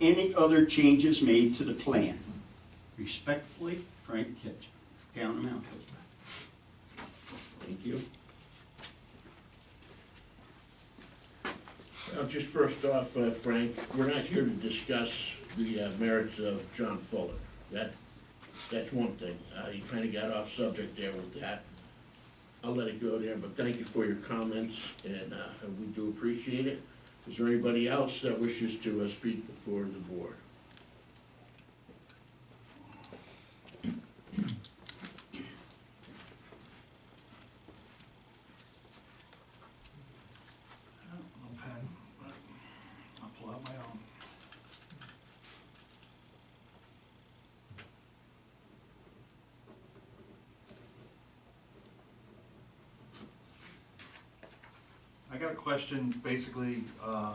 any other changes made to the plan. Respectfully, Frank Kitchen, town of Mount Hope. Thank you. Well, just first off, uh, Frank, we're not here to discuss the uh, merits of John Fuller. That, that's one thing. Uh, you kinda got off subject there with that. I'll let it go there, but thank you for your comments, and, uh, we do appreciate it. Is there anybody else that wishes to, uh, speak before the board? I don't know, pen, but I'll pull out my own. I got a question, basically, uh,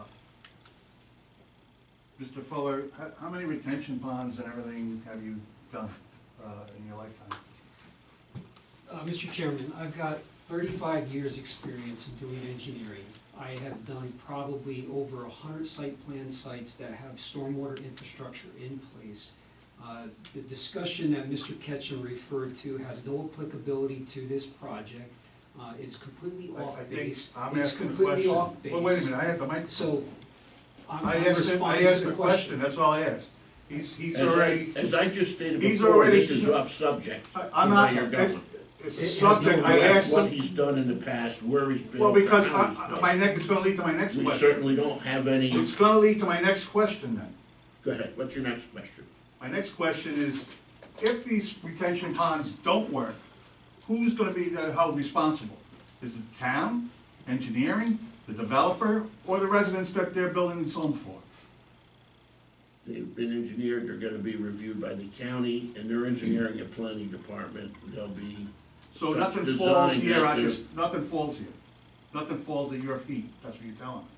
Mr. Fuller, how, how many retention ponds and everything have you done, uh, in your lifetime? Uh, Mr. Chairman, I've got thirty-five years' experience in doing engineering. I have done probably over hundred site plan sites that have stormwater infrastructure in place. Uh, The discussion that Mr. Ketchum referred to has no applicability to this project. Uh, It's completely I- I off think base. I'm It's asking a completely question. off base. Well, wait a minute, I have the mic. So, I'm I I'm asked, him- I responding to asked the the question, question. that's all I asked. He's, he's As I, already, as I just stated He's before, already- this is off subject. I- I'm to not, Where you're it's, going. it's a It has subject, No, I that's asked What him, he's done in the past, where he's been. well, because how he's I- I- done. my neck, it's gonna lead to my next We question. certainly don't have any, It's gonna lead to my next question then. go ahead, what's your next question? My next question is, if these retention ponds don't work, who's gonna be the- held responsible? Is it the town, engineering, the developer, or the residents that they're building this home for? They've been engineered, they're gonna be reviewed by the county, and their engineering and planning department, they'll be. So some nothing falls design here, that I they're- just, nothing falls here. Nothing falls at your feet, that's what you're telling me.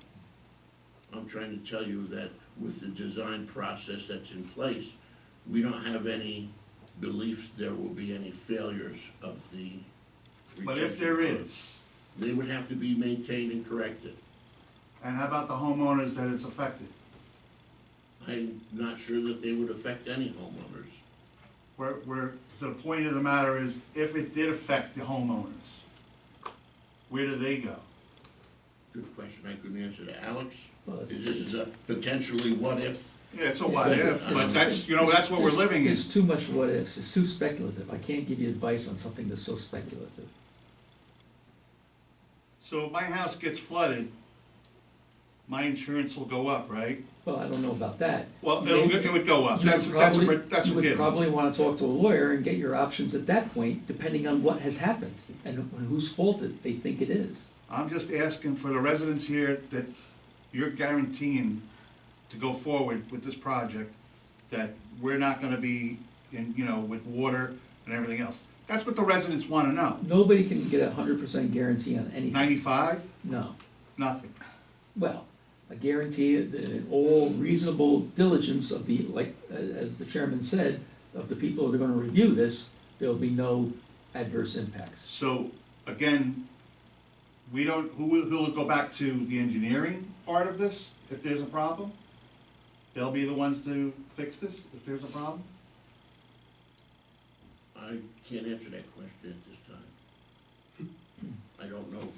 I'm trying to tell you that with the design process that's in place, we don't have any beliefs there will be any failures of the. But if retention there pond. is, They would have to be maintained and corrected. and how about the homeowners that it's affected? I'm not sure that they would affect any homeowners. Where, where, the point of the matter is, if it did affect the homeowners, where do they go? Good question, I couldn't answer that. Alex, Well, it's- this is a potentially what-if Yeah, it's a what if, but that's, you know, that's what we're There's- living in. There's too much what ifs, it's too speculative, I can't give you advice on something that's so speculative. So if my house gets flooded, my insurance will go up, right? Well, I don't know about that. Well, You it'll, may- it would go up, you that's, would that's, a- probably- that's You a would given. probably wanna talk to a lawyer and get your options at that point, depending on what has happened, and whose fault it, they think it is. I'm just asking for the residents here that you're guaranteeing to go forward with this project, that we're not gonna be in, you know, with water and everything else. That's what the residents wanna know. Nobody can get a hundred percent guarantee on anything, Ninety-five, no. nothing. Well, a guarantee, that all reasonable diligence of the, like, uh, as the chairman said, of the people that are gonna review this, there'll be no adverse impacts. So, again, we don't, who will, who will go back to the engineering part of this if there's a problem? They'll be the ones to fix this if there's a problem? I can't answer that question at this time. I don't know.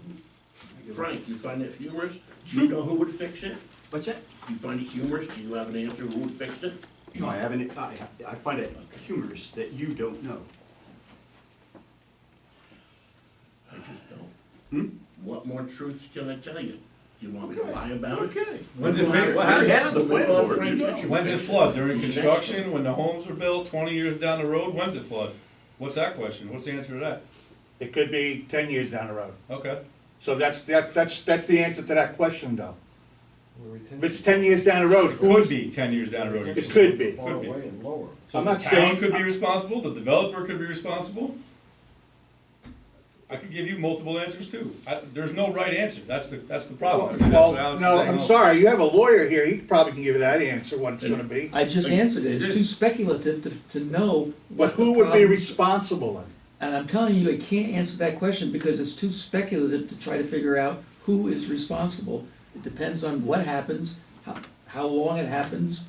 Frank, you find it humorous? Do you know who would fix it? What's that? Do you find it humorous? Do you have an answer who would fix it? No, I haven't, I, I find it humorous that you don't know. I just don't. Hmm? What more truth can I tell you? Do you want me to lie about it? When's We'll it have Frank- fixed? We're ahead of the we'll have landlord, Frank you know. Kitchen When's it fix flood? During He's an construction, expert. when the homes were built, twenty years down the road, when's it flood? What's that question? What's the answer to that? It could be ten years down the road. Okay. So that's, that, that's, that's the answer to that question though. If it's ten years down the road, it Could could, be ten years down the road. it could be. Could be. I'm So the not town saying, could be responsible, the developer could be responsible. I could give you multiple answers too. I, there's no right answer. That's the, that's the problem. I mean, that's what Oh, well, Alex no, is saying I'm also. sorry, you have a lawyer here, he probably can give you that answer, what it's And- gonna be. I just answered it, it's too speculative to, to know But what the who would be problems- responsible then? And I'm telling you, I can't answer that question because it's too speculative to try to figure out who is responsible. It depends on what happens, how, how long it happens,